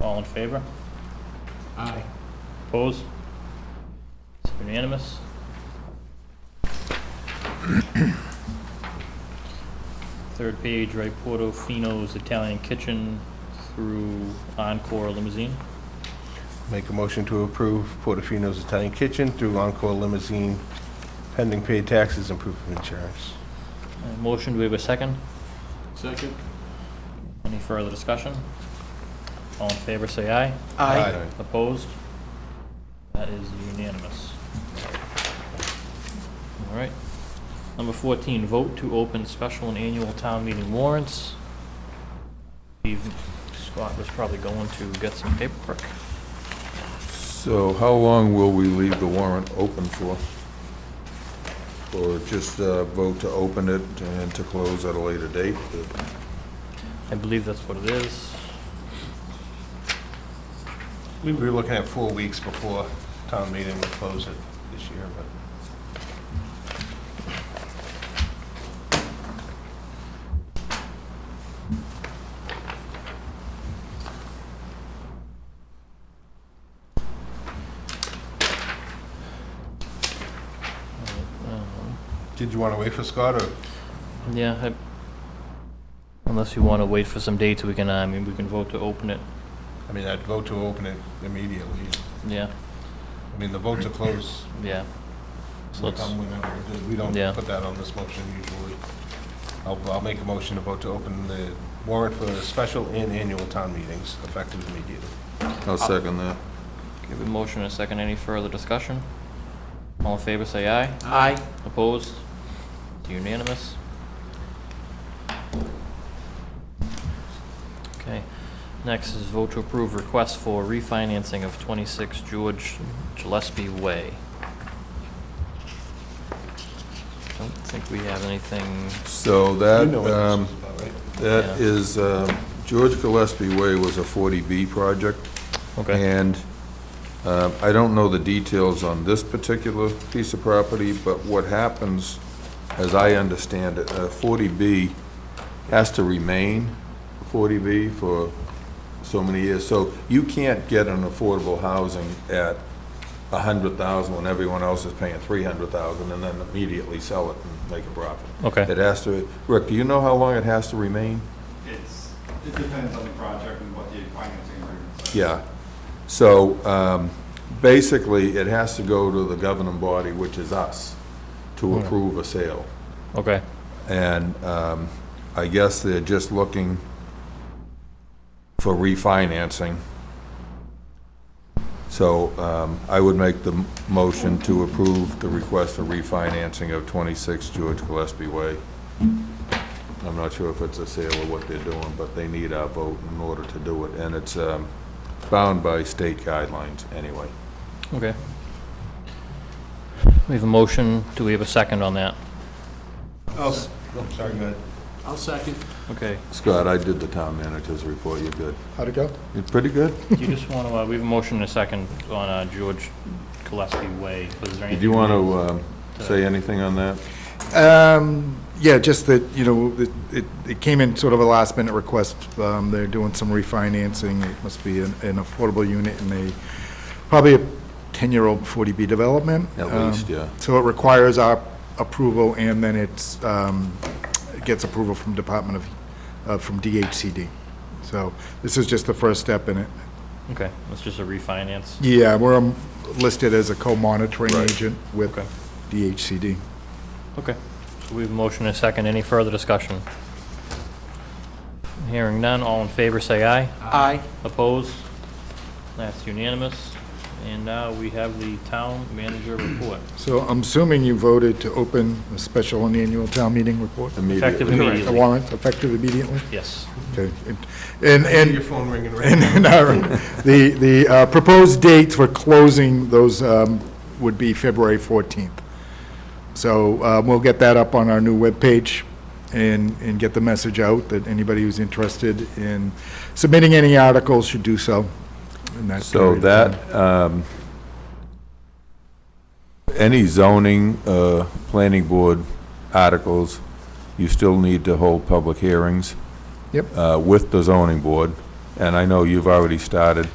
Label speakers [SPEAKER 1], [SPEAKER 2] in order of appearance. [SPEAKER 1] in favor?
[SPEAKER 2] Aye.
[SPEAKER 1] Opposed? It's unanimous. Third page, right, Portofino's Italian Kitchen through Encore Limousine.
[SPEAKER 3] Make a motion to approve Portofino's Italian Kitchen through Encore Limousine pending paid taxes and proof of insurance.
[SPEAKER 1] Uh, Motion, do we have a second?
[SPEAKER 2] Second?
[SPEAKER 1] Any further discussion? All in favor, say aye. Opposed? That is unanimous. All right. Number 14, vote to open special and annual town meeting warrants. Steve Scott was probably going to get some paperwork.
[SPEAKER 4] So how long will we leave the warrant open for? Or just uh, vote to open it and to close at a later date?
[SPEAKER 1] I believe that's what it is.
[SPEAKER 3] We were looking at four weeks before town meeting would close it this year, but
[SPEAKER 1] Um,
[SPEAKER 3] did you want to wait for Scott or?
[SPEAKER 1] Yeah, I- unless you want to wait for some dates, we can, uh, I mean, we can vote to open it.
[SPEAKER 3] I mean, I'd vote to open it immediately.
[SPEAKER 1] Yeah,
[SPEAKER 3] I mean, the vote to close
[SPEAKER 1] yeah. So
[SPEAKER 3] will
[SPEAKER 1] let's,
[SPEAKER 3] come whenever. We don't
[SPEAKER 1] Yeah.
[SPEAKER 3] put that on this motion usually. I'll, I'll make a motion to vote to open the warrant for the special and annual town meetings effective immediately. Uh,
[SPEAKER 4] I'll second that.
[SPEAKER 1] give a motion and a second. Any further discussion? All in favor, say aye.
[SPEAKER 2] Aye.
[SPEAKER 1] Opposed? It's Unanimous? Okay. Next is vote to approve request for refinancing of 26 George Gillespie Way. Don't think we have anything,
[SPEAKER 4] So
[SPEAKER 3] You
[SPEAKER 4] that,
[SPEAKER 3] know what this
[SPEAKER 4] um,
[SPEAKER 3] is about, right?
[SPEAKER 4] that
[SPEAKER 1] Yeah.
[SPEAKER 4] is, um, George Gillespie Way was a 40B project.
[SPEAKER 1] okay.
[SPEAKER 4] And uh, I don't know the details on this particular piece of property, but what happens, as I understand it, uh, 40B has to remain 40B for so many years. So you can't get an affordable housing at 100,000 when everyone else is paying 300,000 and then immediately sell it and make a profit.
[SPEAKER 1] Okay.
[SPEAKER 4] It has to, Rick, do you know how long it has to remain?
[SPEAKER 5] It's, it depends on the project and what the financing agreement says.
[SPEAKER 4] Yeah. So um, basically, it has to go to the governing body, which is us, to approve a sale.
[SPEAKER 1] Okay,
[SPEAKER 4] And um, I guess they're just looking for refinancing. So um, I would make the m- motion to approve the request for refinancing of 26 George Gillespie Way. I'm not sure if it's a sale or what they're doing, but they need our vote in order to do it. And it's um, bound by state guidelines anyway.
[SPEAKER 1] okay. We have a motion. Do we have a second on that?
[SPEAKER 3] Oh, s- oh, sorry, go ahead.
[SPEAKER 2] I'll second.
[SPEAKER 1] Okay.
[SPEAKER 4] Scott, I did the town manager's report. You're good.
[SPEAKER 3] How'd it go?
[SPEAKER 4] You're pretty good.
[SPEAKER 1] Do you just want to, we have a motion and a second on uh, George Gillespie Way. Was there
[SPEAKER 4] Did
[SPEAKER 1] anything?
[SPEAKER 4] you want to um, say anything on that?
[SPEAKER 6] Um, yeah, just that, you know, it- it, it came in sort of a last minute request. Um, they're doing some refinancing. It must be an, an affordable unit in a, probably a ten-year-old forty B development.
[SPEAKER 4] At
[SPEAKER 6] Um,
[SPEAKER 4] least, yeah.
[SPEAKER 6] So it requires our approval and then it's, um, it gets approval from Department of, uh, from DHCD. So this is just the first step in it.
[SPEAKER 1] Okay, that's just a refinance.
[SPEAKER 6] Yeah, we're um, listed as a co-monitoring agent with
[SPEAKER 1] Okay.
[SPEAKER 6] DHCD.
[SPEAKER 1] Okay, so we have a motion and a second. Any further discussion? Hearing none, all in favor say aye.
[SPEAKER 2] Aye.
[SPEAKER 1] Opposed? That's unanimous. And now we have the town manager report.
[SPEAKER 6] So I'm assuming you voted to open a special and annual town meeting report?
[SPEAKER 1] Effective
[SPEAKER 4] Immediately.
[SPEAKER 6] The
[SPEAKER 1] immediately.
[SPEAKER 6] warrant, effective immediately?
[SPEAKER 1] Yes.
[SPEAKER 6] Okay. And,
[SPEAKER 3] Hear your
[SPEAKER 6] and,
[SPEAKER 3] phone ringing right
[SPEAKER 6] and and our, the, the uh, proposed dates for closing those um, would be February 14th. So uh, we'll get that up on our new webpage and, and get the message out that anybody who's interested in submitting any articles should do so in that
[SPEAKER 4] So
[SPEAKER 6] period of time.
[SPEAKER 4] that, um, any zoning, uh, planning board articles, you still need to hold public hearings.
[SPEAKER 6] Yep.
[SPEAKER 4] Uh, with the zoning board, and I know you've already started